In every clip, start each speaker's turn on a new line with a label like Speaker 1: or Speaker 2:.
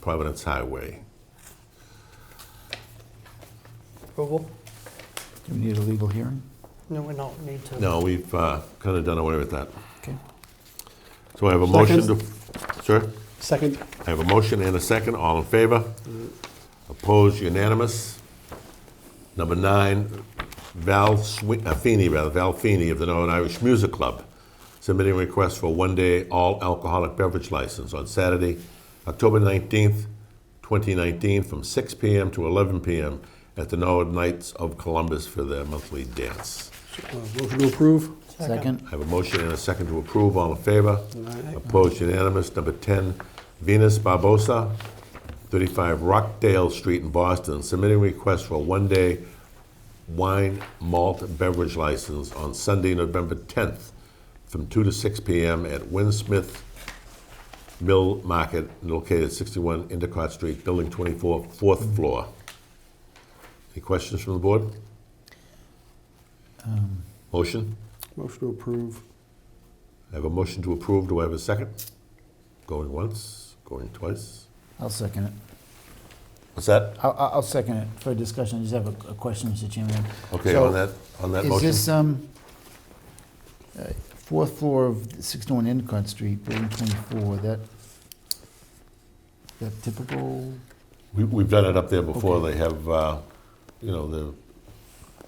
Speaker 1: Providence Highway.
Speaker 2: Approval?
Speaker 3: Do we need a legal hearing?
Speaker 2: No, we don't need to.
Speaker 1: No, we've kind of done away with that.
Speaker 3: Okay.
Speaker 1: So I have a motion to, sir?
Speaker 2: Second?
Speaker 1: I have a motion and a second. All in favor? Opposed, unanimous. Number nine, Val Swi- uh, Feeney, rather, Val Feeney of the Northern Irish Music Club, submitting a request for a one-day all alcoholic beverage license on Saturday, October 19th, 2019, from 6 PM to 11 PM at the Norwood Knights of Columbus for their monthly dance.
Speaker 4: Motion to approve?
Speaker 3: Second?
Speaker 1: I have a motion and a second to approve. All in favor? Opposed, unanimous. Number 10, Venus Barbosa, 35 Rockdale Street in Boston, submitting request for a one-day wine malt beverage license on Sunday, November 10th, from 2 to 6 p.m. at Winsmith Mill Market, located at 61 Endicott Street, Building 24, fourth floor. Any questions from the board? Motion?
Speaker 4: Motion to approve.
Speaker 1: I have a motion to approve. Do I have a second? Going once, going twice.
Speaker 3: I'll second it.
Speaker 1: What's that?
Speaker 3: I'll, I'll I'll second it for discussion. I just have a, a question, Mr. Chairman.
Speaker 1: Okay,
Speaker 3: So,
Speaker 1: on that, on that
Speaker 3: Is
Speaker 1: motion.
Speaker 3: this, um, uh, fourth floor of 61 Endicott Street, building 24, that, that typical?
Speaker 1: We, we've done it up there before.
Speaker 3: Okay.
Speaker 1: They have, uh, you know, the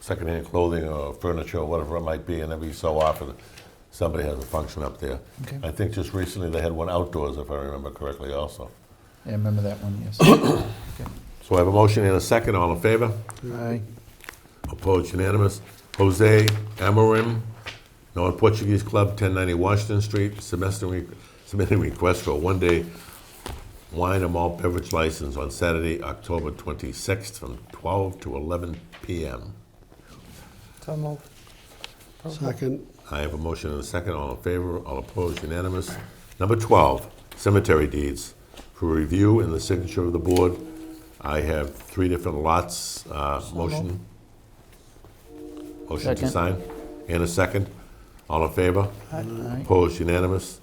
Speaker 1: secondhand clothing or furniture or whatever it might be, and every so often somebody has a function up there.
Speaker 3: Okay.
Speaker 1: I think just recently they had one outdoors, if I remember correctly, also.
Speaker 3: I remember that one, yes. Okay.
Speaker 1: So I have a motion and a second. All in favor?
Speaker 3: Aye.
Speaker 1: Opposed, unanimous. Jose Amarim, North Portuguese Club, 1090 Washington Street, semester- submitting request for a one-day wine and malt beverage license on Saturday, October 26th, from 12 to 11 p.m.
Speaker 2: So moved.
Speaker 4: Second.
Speaker 1: I have a motion and a second. All in favor, all opposed, unanimous. Number 12, cemetery deeds. For review and the signature of the board, I have three different lots. uh, Motion. Motion to
Speaker 3: Second.
Speaker 1: sign. And a second. All in favor?
Speaker 3: Aye.
Speaker 1: Opposed, unanimous.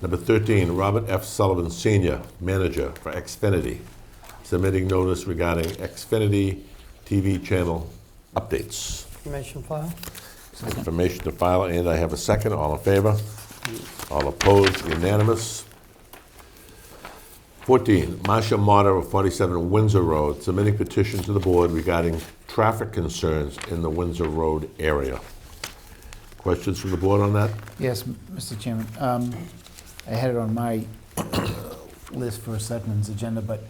Speaker 1: Number 13, Robert F. Sullivan Senior, manager for Xfinity, submitting notice regarding Xfinity TV channel updates
Speaker 2: Information file?
Speaker 1: information to file, and I have a second. All in favor? All opposed? Unanimous? 14, Marcia Motter of 47 Windsor Road, submitting petition to the board regarding traffic concerns in the Windsor Road area. Questions from the board on that?
Speaker 3: Yes, m- Mr. Chairman. Um, I had it on my uh, list for Selectmen's agenda, but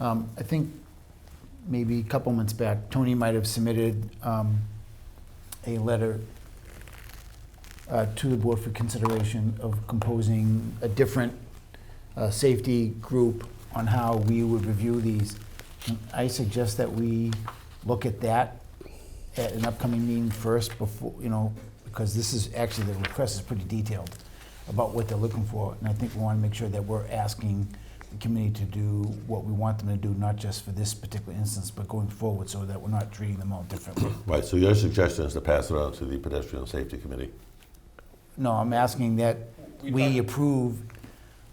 Speaker 3: um, I think maybe a couple months back, Tony might have submitted um, a letter uh, to the board for consideration of composing a different uh, safety group on how we would review these. And I suggest that we look at that at an upcoming meeting first before, you know, because this is, actually, the request is pretty detailed about what they're looking for. And I think we want to make sure that we're asking the committee to do what we want them to do, not just for this particular instance, but going forward, so that we're not treating them all differently.
Speaker 1: Right, so your suggestion is to pass it on to the Pedestrian Safety Committee.
Speaker 3: No, I'm asking that we approve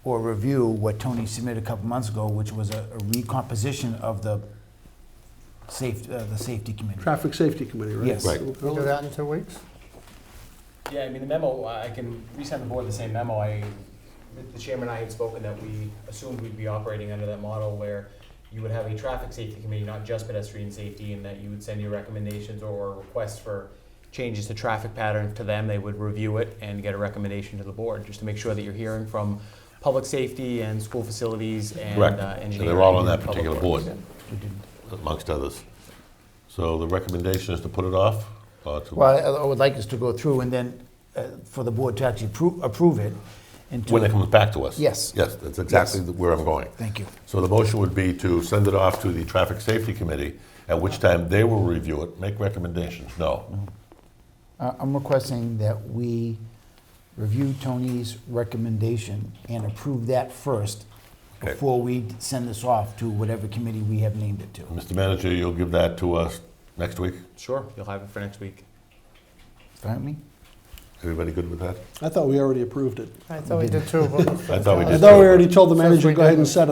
Speaker 3: or review what Tony submitted a couple months ago, which was a a recomposition of the safe, uh, the safety committee.
Speaker 4: Traffic Safety Committee, right?
Speaker 3: Yes. Right.
Speaker 2: We'll do that in two weeks?
Speaker 5: Yeah, I mean, the memo, uh, I can resend the board the same memo. I, the chairman and I had spoken that we assumed we'd be operating under that model where you would have a traffic safety committee, not just pedestrian safety, and that you would send your recommendations or requests for changes to traffic patterns to them. They would review it and get a recommendation to the board, just to make sure that you're hearing from public safety and school facilities and
Speaker 1: Correct.
Speaker 5: uh,
Speaker 1: And
Speaker 5: engineering.
Speaker 1: they're all on
Speaker 5: and
Speaker 1: that
Speaker 5: public
Speaker 1: particular
Speaker 5: works.
Speaker 1: board, amongst others. So the recommendation is to put it off? or to-
Speaker 3: Well, I- I would like us to go through and then uh, for the board to actually approve, approve it. and to-
Speaker 1: When it comes back to us?
Speaker 3: Yes.
Speaker 1: Yes, that's exactly where I'm going.
Speaker 3: Thank you.
Speaker 1: So the motion would be to send it off to the Traffic Safety Committee, at which time they will review it, make recommendations. No.
Speaker 3: Uh, I'm requesting that we review Tony's recommendation and approve that first
Speaker 1: Okay.
Speaker 3: before we send this off to whatever committee we have named it to.
Speaker 1: Mr. Manager, you'll give that to us next week?
Speaker 5: Sure, you'll have it for next week.
Speaker 3: Fine with me?
Speaker 1: Everybody good with that?
Speaker 4: I thought we already approved it.
Speaker 2: I thought we did two. but-
Speaker 1: I thought we
Speaker 4: I
Speaker 1: did.
Speaker 4: thought we already told the
Speaker 2: Since we
Speaker 4: manager, go ahead and
Speaker 2: did-
Speaker 4: set